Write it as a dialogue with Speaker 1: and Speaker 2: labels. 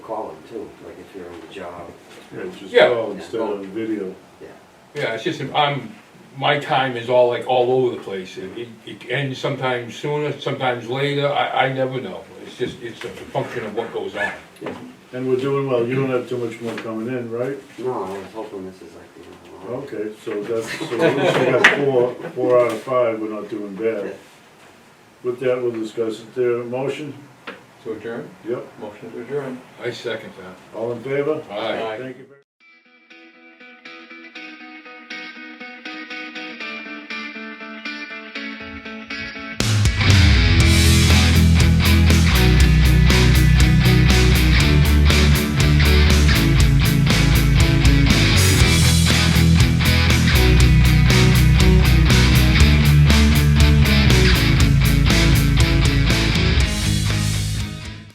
Speaker 1: too, like if you're on the job,
Speaker 2: Yeah, just
Speaker 3: Yeah.
Speaker 2: call instead of video.
Speaker 1: yeah.
Speaker 3: Yeah, it's just, I'm, my time is all like all over the place. It, it- it ends sometimes sooner, sometimes later, I, I never know. It's just, it's a function of what goes on.
Speaker 2: And we're doing well, you don't have too much more coming in, right?
Speaker 1: No, I was hoping this is like, you know,
Speaker 2: Okay, so that's, so at least we got four, four out of five, we're not doing bad. With that, we'll discuss it there, motion,
Speaker 4: To adjourn?
Speaker 2: yep,
Speaker 4: Motion to adjourn.
Speaker 3: I second that.
Speaker 2: all in favor?
Speaker 3: Aye.
Speaker 2: Thank you very